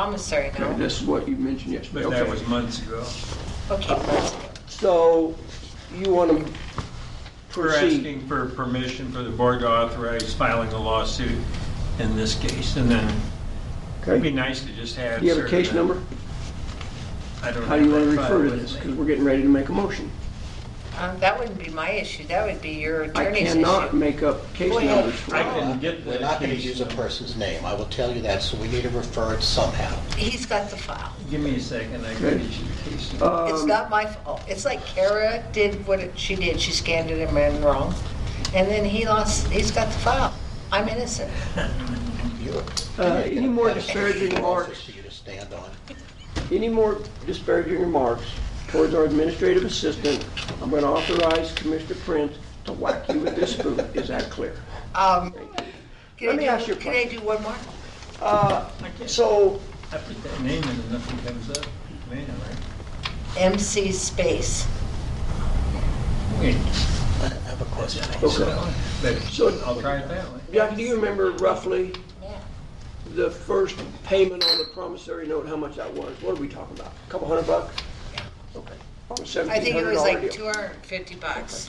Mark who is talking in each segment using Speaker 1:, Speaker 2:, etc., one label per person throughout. Speaker 1: promissory
Speaker 2: Okay,
Speaker 1: note.
Speaker 2: This is what you mentioned yesterday.
Speaker 3: But that
Speaker 2: Okay.
Speaker 3: was months ago.
Speaker 1: Okay, let's go.
Speaker 2: So you want to
Speaker 3: We're
Speaker 2: Proceed.
Speaker 3: asking for permission for the board to authorize filing a lawsuit in this case, and then it'd be
Speaker 2: Okay.
Speaker 3: nice to just have.
Speaker 2: Do you have a
Speaker 3: sort of
Speaker 2: case number?
Speaker 3: I don't
Speaker 2: How do you
Speaker 3: have
Speaker 2: want to
Speaker 3: that
Speaker 2: refer to
Speaker 3: file with
Speaker 2: this?
Speaker 3: me.
Speaker 2: Because we're getting ready to make a motion.
Speaker 1: Um, That wouldn't be my issue, that would be your
Speaker 2: I
Speaker 1: attorney's issue.
Speaker 2: cannot make up case
Speaker 1: Go ahead.
Speaker 2: numbers for
Speaker 3: I
Speaker 2: you.
Speaker 3: can get the
Speaker 4: We're not going to
Speaker 3: case
Speaker 4: use a
Speaker 3: number.
Speaker 4: person's name, I will tell you that, so we need to refer it somehow.
Speaker 1: He's got the file.
Speaker 3: Give me a second, I can get you the case number.
Speaker 1: It's
Speaker 2: Um,
Speaker 1: not my fault. It's like Kara did what it- she did, she scanned it and ran wrong. And then he lost, he's got the file. I'm innocent.
Speaker 4: You-
Speaker 2: Uh,
Speaker 4: you're
Speaker 2: any more
Speaker 4: gonna have a
Speaker 2: disparaging
Speaker 4: basis
Speaker 2: remarks?
Speaker 4: For you to stand on.
Speaker 2: Any more disparaging remarks towards our administrative assistant, I'm going to authorize Commissioner Prince to whack you with this spoon. Is that clear?
Speaker 1: Um, can I
Speaker 2: Let me
Speaker 1: do-
Speaker 2: ask you a
Speaker 1: Can I do one more? Uh,
Speaker 3: I can't-
Speaker 2: So
Speaker 3: I put that name in and nothing comes up. Man, right?
Speaker 1: MC Space.
Speaker 3: Wait,
Speaker 4: I have a question.
Speaker 3: that's not it.
Speaker 2: So-
Speaker 3: But I'll try it that way.
Speaker 2: Jackie, do you remember roughly
Speaker 1: Yeah.
Speaker 2: the first payment on the promissory note, how much that was? What are we talking about? A Couple hundred bucks? Okay.
Speaker 1: I think it was like
Speaker 2: $1,700 deal.
Speaker 1: 250 bucks.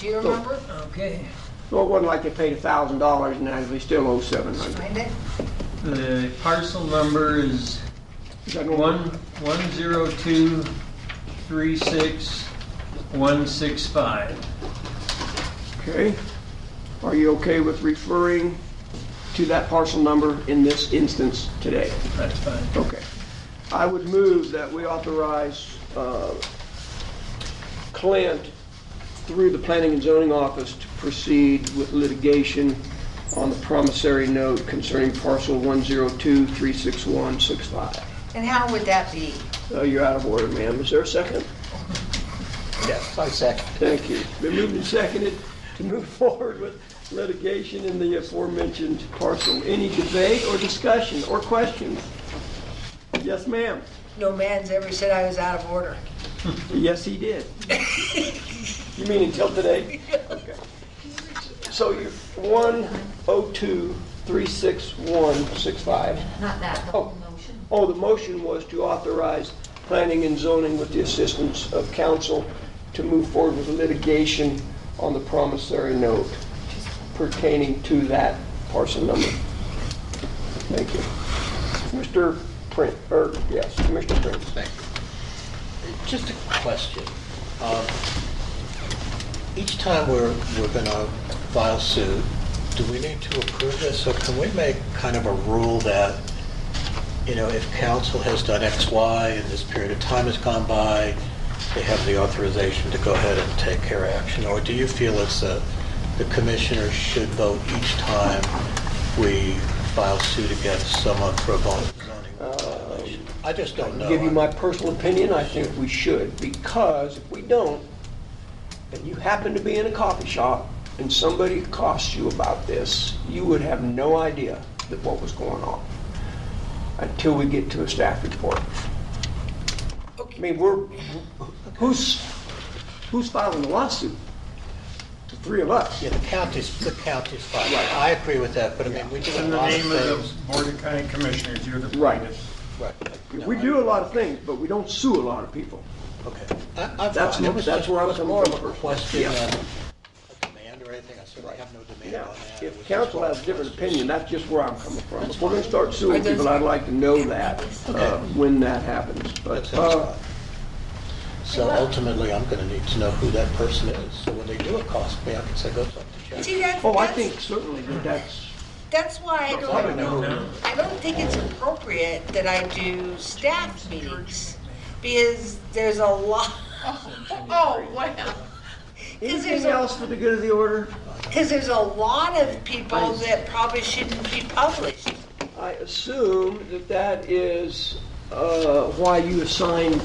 Speaker 1: Do you remember?
Speaker 3: Okay.
Speaker 2: Well, it wasn't like they paid a thousand dollars and now they still owe seven hundred.
Speaker 1: Find it?
Speaker 3: The parcel number is
Speaker 2: Is that
Speaker 3: One,
Speaker 2: normal?
Speaker 3: one zero two, three six, one six five.
Speaker 2: Okay. Are you okay with referring to that parcel number in this instance today?
Speaker 3: That's fine.
Speaker 2: Okay. I would move that we authorize uh, Clint, through the Planning and Zoning Office, to proceed with litigation on the promissory note concerning parcel 102-36165.
Speaker 1: And how would that be?
Speaker 2: Uh, You're out of order, ma'am. Is there a second?
Speaker 4: Yes, I second.
Speaker 2: Thank you. It's Been moved and seconded to move forward with litigation in the aforementioned parcel. Any debate or discussion or questions? Yes, ma'am.
Speaker 1: No man's ever said I was out of order.
Speaker 2: Yes, he did. You mean until today? Okay. So you're 102-36165.
Speaker 5: Not that, the whole motion.
Speaker 2: Oh, the motion was to authorize planning and zoning with the assistance of council to move forward with litigation on the promissory note pertaining to that parcel number. Thank you. Mr. Prince, or, yes, Mr. Prince.
Speaker 4: Thank you. Just a question. Um, Each time we're, we're going to file suit, do we need to approve this, or can we make kind of a rule that, you know, if council has done X, Y, and this period of time has gone by, they have the authorization to go ahead and take care of action? Or do you feel it's a, the commissioners should vote each time we file suit against someone for a zoning violation? I just don't know.
Speaker 2: Uh, give you my personal opinion, I think we should, because if we don't, and you happen to be in a coffee shop and somebody costs you about this, you would have no idea that what was going on until we get to a staff report. I mean, we're, who's, who's filing the lawsuit? The three of us.
Speaker 4: Yeah, the county's, the county's fine. I agree with that, but I mean, we do a
Speaker 3: In the
Speaker 4: lot of
Speaker 3: name of the
Speaker 4: things.
Speaker 3: Board of County Commissioners, you're the
Speaker 2: Right.
Speaker 3: plaintiff.
Speaker 4: Right.
Speaker 2: We do a lot of things, but we don't sue a lot of people.
Speaker 4: Okay. I- I'm
Speaker 2: That's-
Speaker 4: fine. It was
Speaker 2: that's
Speaker 4: just-
Speaker 2: where I'm
Speaker 4: it was
Speaker 2: coming
Speaker 4: more of
Speaker 2: from
Speaker 4: a
Speaker 2: first.
Speaker 4: question
Speaker 2: Yeah.
Speaker 4: than a demand or anything. I certainly have no demand
Speaker 2: Yeah,
Speaker 4: on that. It was
Speaker 2: if
Speaker 4: just
Speaker 2: council
Speaker 4: more of a
Speaker 2: has a different
Speaker 4: question.
Speaker 2: opinion, that's just where I'm coming from. If we're gonna start suing people, I'd like to know that, uh, when that happens.
Speaker 4: That
Speaker 2: But,
Speaker 4: sounds
Speaker 2: uh,
Speaker 4: fine. So ultimately, I'm going to need to know who that person is. So when they do accost me, I can say, go talk to Jack.
Speaker 1: See, that,
Speaker 2: oh, I
Speaker 1: that's-
Speaker 2: think certainly that that's,
Speaker 1: That's why I
Speaker 2: I
Speaker 1: don't,
Speaker 2: don't know.
Speaker 3: No.
Speaker 1: I don't think it's appropriate that I do staff meetings, because there's a lot. Oh, wow. Because there's
Speaker 2: Anything
Speaker 1: a,
Speaker 2: else for the good of the order?
Speaker 1: because there's a lot of people that probably shouldn't be published.
Speaker 2: I assume that that is, uh, why you assign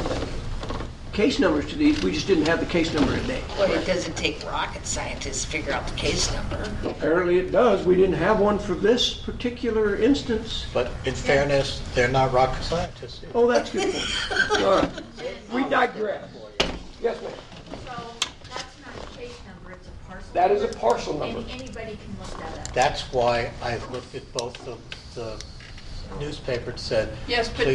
Speaker 2: case numbers to these. We just didn't have the case number today.
Speaker 1: Well, it doesn't take rocket scientists to figure out the case number.
Speaker 2: Apparently it does. We didn't have one for this particular instance.
Speaker 4: But in fairness, they're not rocket scientists. either.
Speaker 2: Oh, that's good. point. All right. We digress. Yes, ma'am.
Speaker 5: So that's not a case number, it's a parcel.
Speaker 2: That is a
Speaker 5: number.
Speaker 2: parcel
Speaker 5: Any-
Speaker 2: number.
Speaker 5: Anybody can look that up.
Speaker 4: That's why I've looked at both the, the newspaper that said,
Speaker 6: Yes, but
Speaker 4: please